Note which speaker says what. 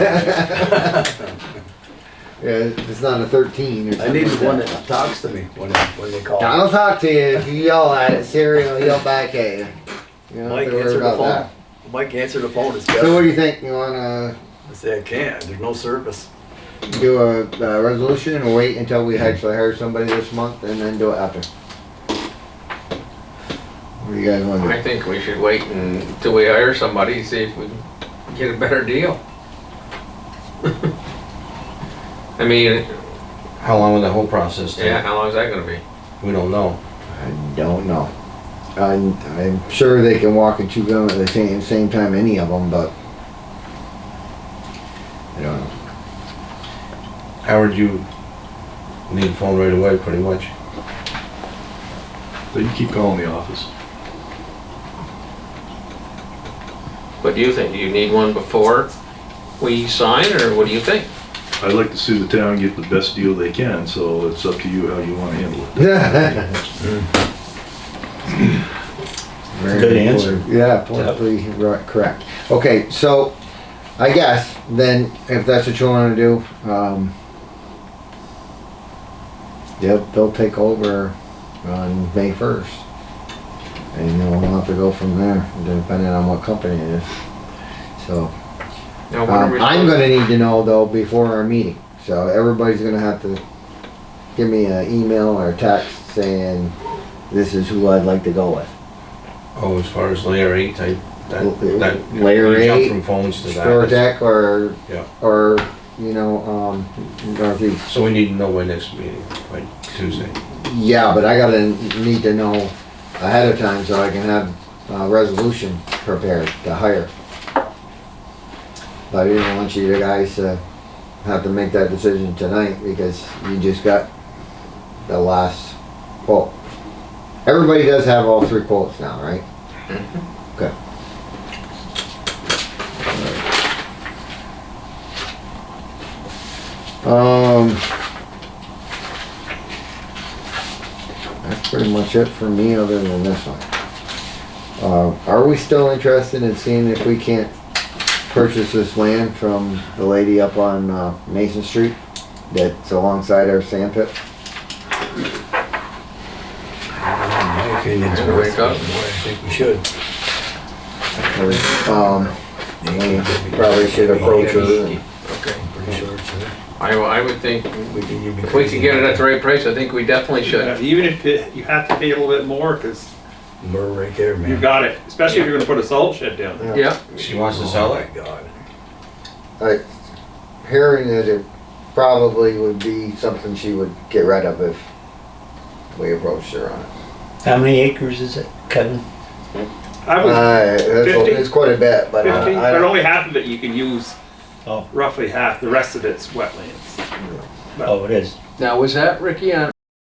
Speaker 1: Yeah, it's not a 13 or something.
Speaker 2: I needed
Speaker 1: like
Speaker 2: one
Speaker 1: that.
Speaker 2: that talks to me when, when they call.
Speaker 1: I'll talk to you if you yell at it. Siri will yell back at you. You don't
Speaker 2: Mike
Speaker 1: have to worry
Speaker 2: answered the
Speaker 1: about
Speaker 2: phone.
Speaker 1: that.
Speaker 2: Mike answered the phone. It's
Speaker 1: So what
Speaker 2: got,
Speaker 1: do you think? You want
Speaker 2: I say I can't. There's no service.
Speaker 1: to do a, uh resolution or wait until we actually hire somebody this month and then do it after? What do you guys want to do?
Speaker 3: I think we should wait until we hire somebody, and see if we can get a better deal. I mean,
Speaker 4: How long will the whole process take?
Speaker 3: yeah, how long is that gonna be?
Speaker 4: We don't know.
Speaker 1: I don't know. I'm, I'm sure they can walk and chew gum at the same, same time, any of them, but I don't know.
Speaker 4: Howard, you need a phone right away, pretty much.
Speaker 5: But you keep calling the office.
Speaker 3: What do you think? Do you need one before we sign, or what do you think?
Speaker 5: I'd like to sue the town, and get the best deal they can, so it's up to you how you wanna handle it.
Speaker 4: Good answer.
Speaker 1: Yeah, politically right, correct. Okay, so I guess then if that's what you want to do, um, they'll, they'll take over on May first. And then we'll have to go from there, depending on what company it is. So.
Speaker 3: Now, when are
Speaker 1: Um,
Speaker 3: we
Speaker 1: I'm
Speaker 3: supposed-
Speaker 1: gonna need to know though before our meeting, so everybody's gonna have to give me an email or a text saying, this is who I'd like to go with.
Speaker 4: Oh, as far as layer eight, I,
Speaker 1: L-
Speaker 4: that, that.
Speaker 1: layer
Speaker 4: you jump
Speaker 1: eight,
Speaker 4: From phones to
Speaker 1: Store
Speaker 4: that.
Speaker 1: deck or,
Speaker 4: Yeah.
Speaker 1: or, you know, um, northeast.
Speaker 4: So we need to know by next meeting, by Tuesday.
Speaker 1: Yeah, but I gotta need to know ahead of time so I can have a resolution prepared to hire. But I didn't want you guys to have to make that decision tonight because you just got the last quote. Everybody does have all three quotes now, right? Okay. Um. That's pretty much it for me, other than this one. Uh, are we still interested in seeing if we can't purchase this land from the lady up on, uh, Mason Street? That's alongside our sand pit?
Speaker 2: My opinion's
Speaker 3: Yeah, wake
Speaker 2: worth it.
Speaker 3: up.
Speaker 2: I think we should.
Speaker 1: Um, we probably should approach her. and-
Speaker 3: Okay.
Speaker 2: Pretty sure it's her.
Speaker 3: I, w- I would think,
Speaker 2: We can- you'd be
Speaker 3: if we
Speaker 2: crazy.
Speaker 3: could get it at the right price, I think we definitely
Speaker 6: Yeah,
Speaker 3: should.
Speaker 6: Even if it- you have to pay a little bit more, because
Speaker 2: We're right there, man.
Speaker 6: you got it, especially if you're gonna put a salt shed down there.
Speaker 3: Yeah,
Speaker 4: She wants to
Speaker 2: Oh
Speaker 4: sell
Speaker 2: my
Speaker 4: it?
Speaker 2: God.
Speaker 1: Like, hearing that it probably would be something she would get rid of if we approached her on it.
Speaker 7: How many acres is it, Kevin?
Speaker 6: I was,
Speaker 1: Uh, that's,
Speaker 6: 15.
Speaker 1: it's quite a bit, but uh,
Speaker 6: fifteen,
Speaker 1: I
Speaker 6: but
Speaker 1: don't,
Speaker 6: only half of it you can use,
Speaker 7: Oh.
Speaker 6: roughly half, the rest of it's wetlands.
Speaker 7: Oh, it is.
Speaker 3: now was that Ricky on